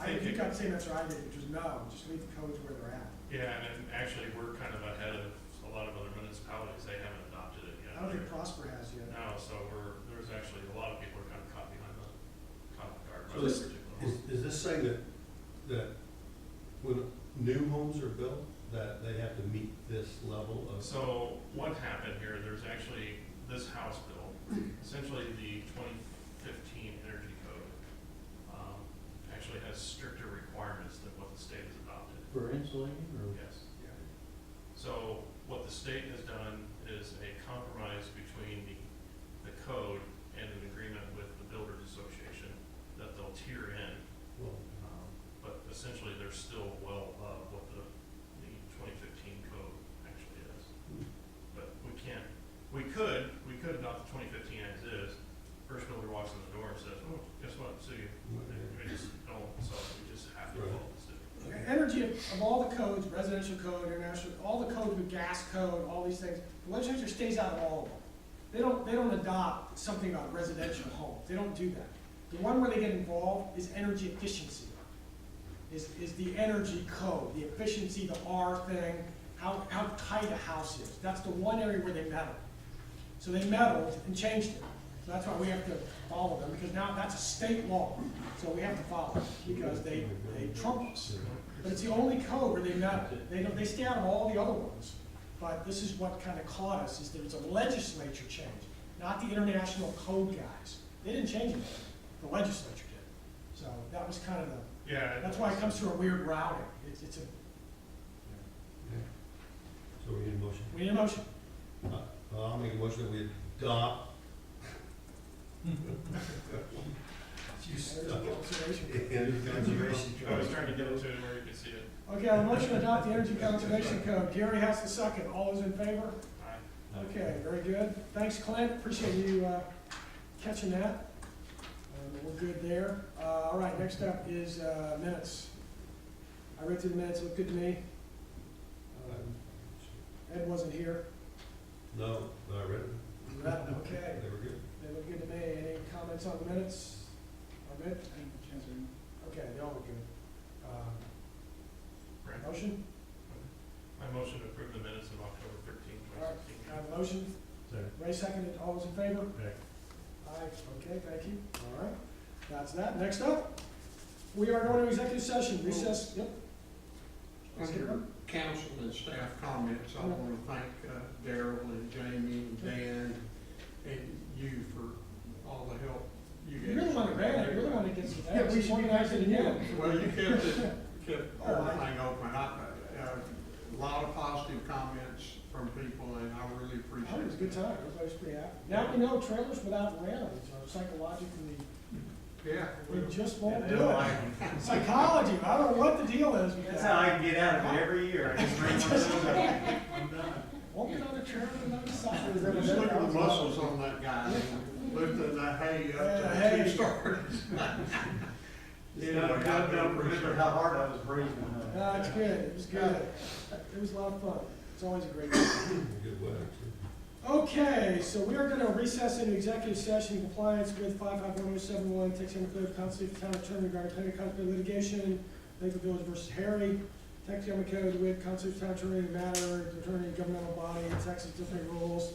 I think I'm saying that's what I did, which is no, just leave the codes where they're at. Yeah, and actually, we're kind of ahead of a lot of other municipalities, they haven't adopted it yet. I don't think Prosper has yet. No, so we're, there's actually, a lot of people are kind of caught behind the, caught off guard by So this this- particular. Is, is this saying that, that when new homes are built, that they have to meet this level of? So what happened here, there's actually this House bill, essentially the 2015 Energy Code, um, actually has stricter requirements than what the state has adopted. For insulating Yes. Yeah. So what the state has done is a compromise between the, the code and an agreement with the builders association that they'll tier in. Well, um, But essentially, they're still well above what the, the twenty fifteen code actually is. But we can't, we could, we could adopt the twenty fifteen as is. First builder walks in the door and says, oh, guess what, city, we just don't, so we just have to follow the city. Okay, Energy, of of all the codes, residential code, international, all the codes, the gas code, all these things, the legislature stays out of all of them. They don't, they don't adopt something about residential homes, they don't do that. The one where they get involved is energy efficiency, is, is the energy code, the efficiency, the R thing, how, how tight a house is. That's the one area where they meddle. So they meddled and changed it. So that's why we have to follow them, because now that's a state law, so we have to follow it, because they, they trump us. But it's the only code where they met, they don't, they stay out of all the other ones. But this is what kind of caught us, is there was a legislature change, not the international code guys. They didn't change anything, the legislature did. So that was kind of the, Yeah. that's why it comes through a weird routing. It's, it's a, So we need a motion. we need a motion. Uh, I'll make a motion that we adopt. You Energy stuck. conservation. And conservation. I was trying to get it to where you could see it. Okay, on the motion to adopt the energy conservation code, Gary has the second. All those in favor? I- Okay, very good. Thanks, Clint, appreciate you uh, catching that. Um, We're good there. Uh, All right, next up is uh, minutes. I read through the minutes, looked good to me. Um, Ed wasn't here. No, but I read it. Okay, They were good. they look good to me. Any comments on the minutes? Are good? Okay, they all look good. Uh, Brent? Motion? I motion to approve the minutes of October 13, All right, 2016. have a motion. Second. Ray seconded, all those in favor? Aye. Aye, okay, thank you, all right, that's that, next up, we are going to executive session, recess, yep. Let's get Under them. council and staff comments, I want to thank uh, Daryl and Jamie and Dan and you for all the help you guys. You're the one that ran it, you're the one that gets the Yeah, we ads, should be organizing it again. Well, you kept it, kept Oh, I- everything open. I- uh, A lot of positive comments from people and I really appreciate it. That Oh, was a good time, everybody's pretty happy. Now we know trailers without railings are psychologically, Yeah. they just won't And do they don't it. like it. Psychology, I don't know what the deal is with That's how that. I get out of it every year. I just bring one of those up. I'm done. Won't get on a trailer without a sign. Just look at the muscles on that guy, lifting that hay up Yeah, to hay. two stories. You know, I don't remember how hard I was breathing. No, it's good, it was good, it was a lot of fun, it's always a great time. Good weather, too. Okay, so we are gonna recess into executive session in compliance with five five one oh seven one, Texas Code of Constitution of the Town Attorney regarding pending conflict litigation, Lakeville Village versus Harry, Texas Code with Constitution of the Town Attorney matter, attorney governmental body, Texas different rules,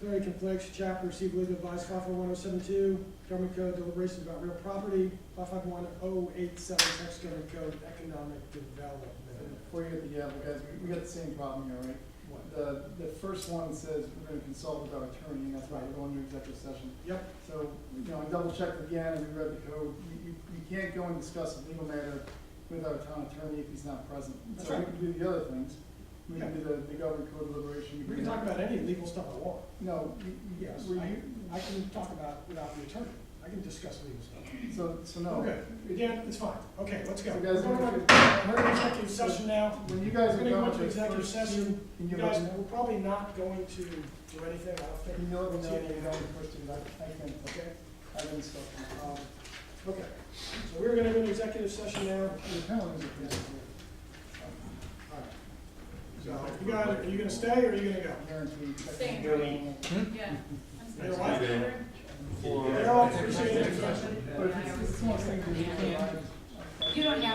clearing conflicts, chapter, receive legal advice, five five one oh seven two, government code deliberations about real property, five five one oh eight seven, Texas Government Code economic development. Uh, Before you get the, yeah, guys, we- we got the same problem here, right? The, the first one says we're gonna consult with our attorney, and that's why we're going to executive session. Yep, So, you know, I double checked again, and we read the code, you, you, you can't go and discuss a legal matter with our town attorney if he's not present. That's So we right. can do the other things, we can do the, the government code deliberation. we can talk about any legal stuff I want. No, you, you, Yes, were I, you, I can talk about without the attorney. I can discuss legal stuff. so, so no. Okay, again, it's fine. Okay, let's go. So We're guys, going to, we're in executive session now. When you guys We're gonna are go done with into the executive first two, session. can You you let guys, me know? we're probably not going to do anything. I don't You think. know, we know, See we any- know, we're first, I, I can, Okay, I can stop. um, okay. So we're gonna go into executive session now. The penalties are- So you guys, are you gonna stay or are you gonna go? guaranteed. Same, Yeah. You know what? Four. They're all appreciated. But it's, it's one thing that you can't. You don't have